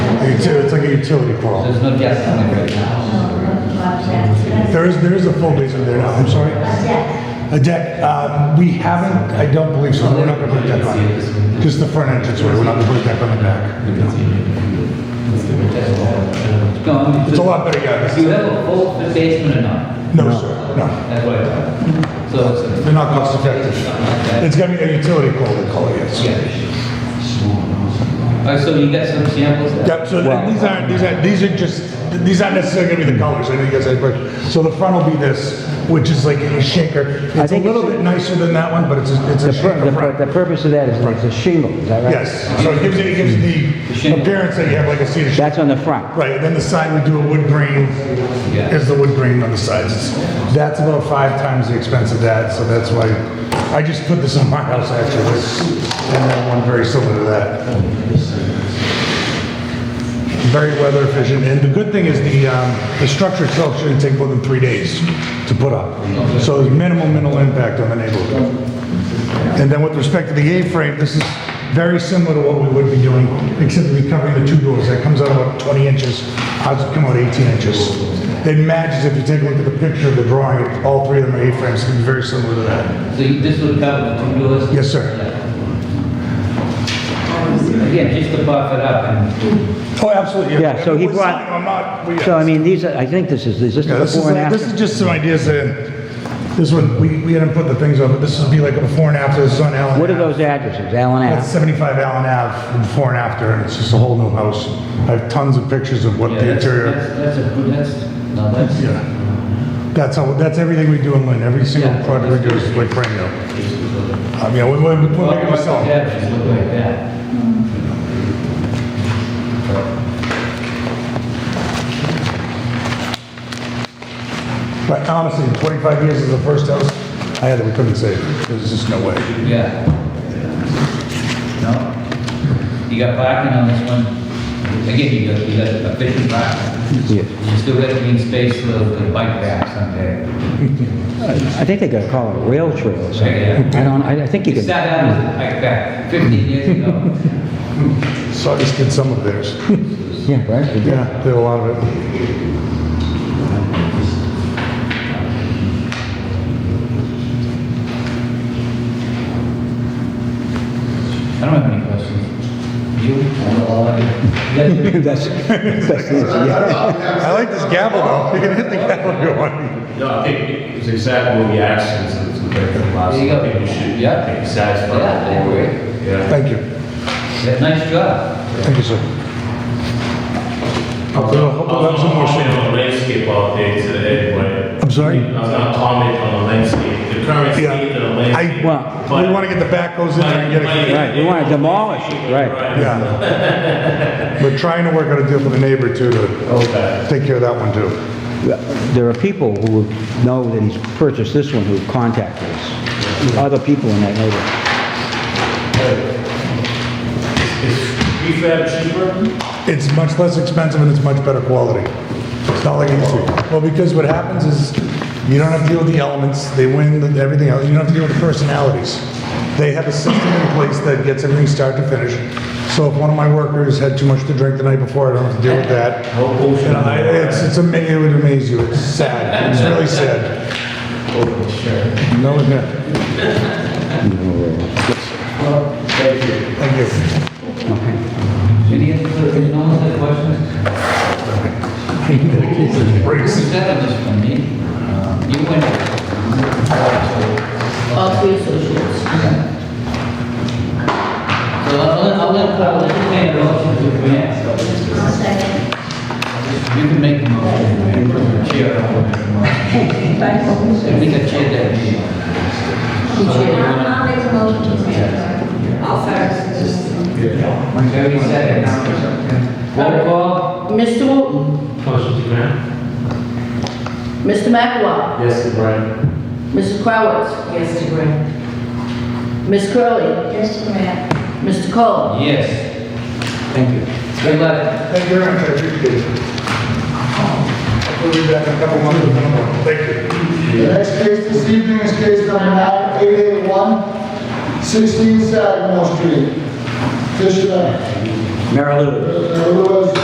consider, it's like a utility crawl. There's no guest on it right now. There is, there is a full basement there now, I'm sorry. A deck, um, we haven't, I don't believe so, we're not gonna put a deck on it. Just the front entrance, way. we're not gonna put a deck on the back. No, I mean, It's a lot better, yeah. Do you have a full basement or not? No, sir, no. That's what I thought. So it's a. Oh, They're not cost effective. Something like that. It's gonna be a utility crawl, they call it, yes. Yeah. All right, so you got some samples? there? Yep, so and these aren't, these aren't, these are just, these aren't necessarily gonna be the colors, I know you guys had, but, so the front will be this, which is like a shaker. I It's a think little it's- bit nicer than that one, but it's a, it's The a pur- shaker The pur- front. the purpose of that is it's a shingle, is that right? Yes, so it gives, it gives the shingle. appearance that you have like a cedar shack. That's on the front. Right, and then the side we do a wood grain, Yeah. is the wood grain on the sides. It's- That's about five times the expense of that, so that's why, I just put this on my house actually, this- and then one very similar to that. Very weather efficient, and the good thing is the, um, the structure itself shouldn't take more than three days to put up. So there's minimal, minimal impact on the neighborhood. And then with respect to the A-frame, this is very similar to what we would be doing, except we're covering the two doors. That comes out about 20 inches, ours would come out 18 inches. It matches, if you take a look at the picture of the drawing, all three of them are A-frames, it's very similar to that. So you- this would cover the two doors? Yes, sir. Again, just to buff it up and. Oh, absolutely. Yeah, so he We're brought- signing, I'm not, we- So I mean, these are, I think this is, is this Yeah, the this is, before and this is after? just some ideas that, this one, we, we hadn't put the things on, but this would be like a before and after, this is on Allen What are Ave. those addresses, Allen That's Ave? 75 Allen Ave, before and after, and it's just a whole new house. I have tons of pictures of what Yeah, the that's- interior. That's, that's a good, that's, no, that's. Yeah. That's how, that's everything we do in Lynn. Every single Yeah. project we do is like brand new. I mean, we, we, we make it myself. Yeah, just look like that. But honestly, in 25 years is the first house I had that we couldn't save. There's just no way. Yeah. No? You got parking on this one? Again, you got, you got efficient parking. Yeah. You still got green space for the the bike path someday. I think they gotta call it a rail trail or Yeah, something. yeah. I don't, I I think you It could. sat down as a bike path fifteen years ago. So I just did some of theirs. Yeah, right? you did. Yeah, did a lot of it. I don't have any questions. You? You got- That's, that's easy, yeah. I like this gavel though. You can hit the gavel if you want. No, I think it's exactly what we asked since it's a break from last. There you go. I think we should, Yeah. yeah, take a satisfied. Yeah, I agree. Yeah. Thank you. Yeah, Nice job. Thank you, sir. Hopefully, I I'll- was hopefully I'll have gonna some more shade. comment on the landscape all day today, but. I'm sorry? I was gonna comment on the landscape, the current state of the Yeah. I, landscape. Well, we want to get the backhoes in there and get it. Right, we wanna demolish it, right. Yeah. We're trying to work out a deal with the neighbor too to Okay. take care of that one too. There are people who know that he's purchased this one who have contacted us, other people in that neighborhood. Is prefab cheaper? It's much less expensive and it's much better quality. It's not like it used to. be. Well, because what happens is you don't have to deal with the elements, they win the- everything else, you don't have to deal with the personalities. They have a system in place that gets everything start to finish. So if one of my workers had too much to drink the night before, I don't have to deal with that. Whole ocean. And I, it's, it's ama, it would amaze you, it's sad, it's really sad. Oh, sure. No, no. Thank you. thank you. Any other, any other questions? Bruce. Who's that on this one, me? Uh, You went. All three associates. So I'll, let- I'll let, I'll entertain a motion to grant, so I'll second. you can make the motion. Chair, I will make the motion. So we can chair that meeting. I'll I'll make a motion to adjourn. I'll second. Very second. Roll call? Mr. Wooten, Motion to grant? Mr. McElwain, Yes, to grant. Mrs. Crowitz. Yes, to grant. Ms. Curley, Yes, to grant. Mr. Cole. Yes. Thank you. Good luck. Thank you very much, I appreciate it. We'll be back in a couple months with another one. Thank you. The next case this evening is case number 9881, 16 Sagamore Street. Petitioner Mary Lou. uh, Lewis